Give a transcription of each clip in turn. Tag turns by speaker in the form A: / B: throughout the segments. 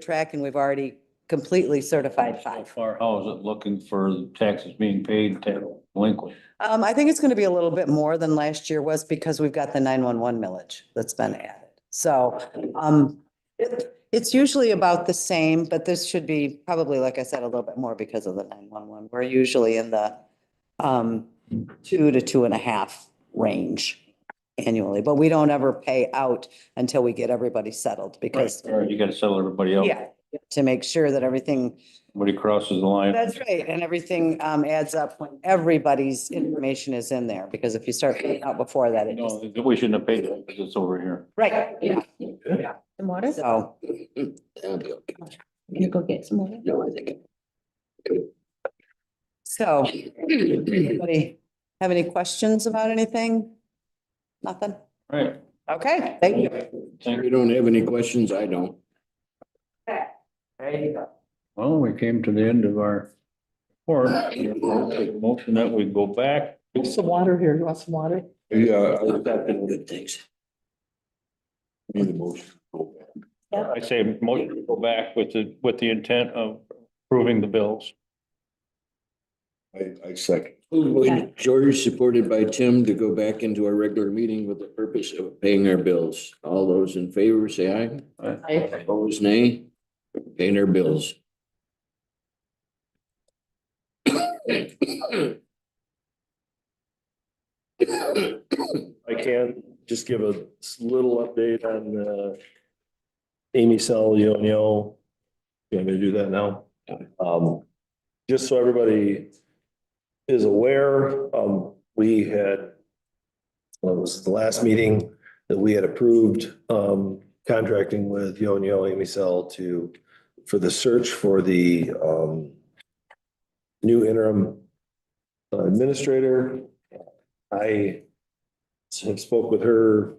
A: track and we've already completely certified
B: So
A: five.
B: far, how is it looking for taxes being paid, to delinquent?
A: Um, I think it's gonna be a little bit more than last year was because we've got the nine-one-one millage that's been added. So, um, it- it's usually about the same, but this should be probably, like I said, a little bit more because of the nine-one-one. We're usually in the, um, two to two and a half range annually, but we don't ever pay out until we get everybody settled because,
B: Or you gotta settle everybody out
A: yeah, to make sure that everything
B: when he crosses the line.
A: that's right, and everything um adds up when everybody's information is in there, because if you start putting out before that, it just,
B: No, we shouldn't have paid it, because it's over here.
A: right, yeah,
C: Some water?
A: so.
D: That'll be okay.
C: Can you go get some water?
D: No, I think.
A: So, anybody have any questions about anything? Nothing?
B: Right.
A: Okay, thank you.
B: Thank-
D: You don't have any questions? I don't.
B: Well, we came to the end of our report. Motion that we go back.
C: There's some water here. You want some water?
D: Yeah. Good things. Need a motion.
B: I say motion to go back with the, with the intent of approving the bills.
D: I, I second. George, supported by Tim, to go back into our regular meeting with the purpose of paying our bills. All those in favor, say aye. Opposed, nay. Paying our bills.
E: I can just give a s- little update on uh Amy Sal Leonio. You want me to do that now? Um, just so everybody is aware, um, we had well, it was the last meeting that we had approved um contracting with Yonio Amy Sal to for the search for the um new interim uh, administrator. I have spoke with her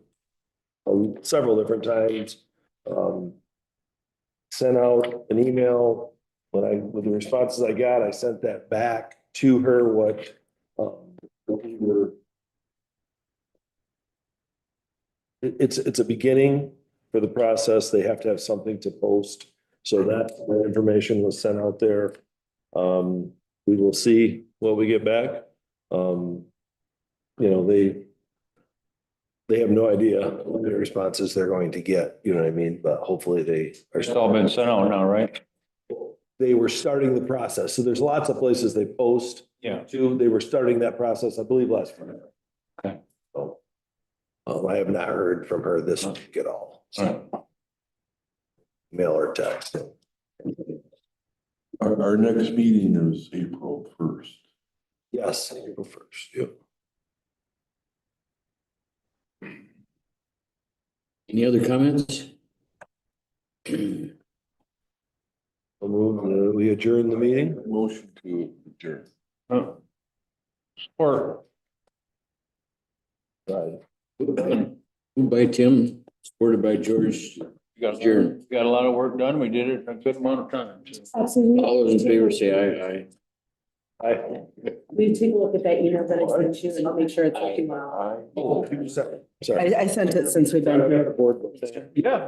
E: um, several different times. um, Sent out an email, when I, with the responses I got, I sent that back to her what um, what we were. It- It's, it's a beginning for the process. They have to have something to post. So that that information was sent out there. Um, We will see what we get back. Um, You know, they, they have no idea what the responses they're going to get, you know what I mean? But hopefully they are.
B: It's all been sent out now, right?
E: They were starting the process. So there's lots of places they post
B: Yeah.
E: to. They were starting that process, I believe, last Friday.
B: Okay.
E: So, um, I have not heard from her this week at all.
B: All right.
E: Mail or text.
F: Our, our next meeting is April first.
E: Yes, April first, yep.
D: Any other comments?
E: We'll move, uh, we adjourn the meeting.
F: Motion to adjourn.
B: Support.
E: Right.
D: Moved by Tim, supported by George.
B: We Got,
D: Sure.
B: we got a lot of work done. We did it in a good amount of time. so.
D: All those in favor say aye, aye.
E: I,
C: We take a look at that email that I sent you and I'll make sure it's working well.
E: I, oh, sorry.
C: I, I sent it since we've been here.
E: Yeah.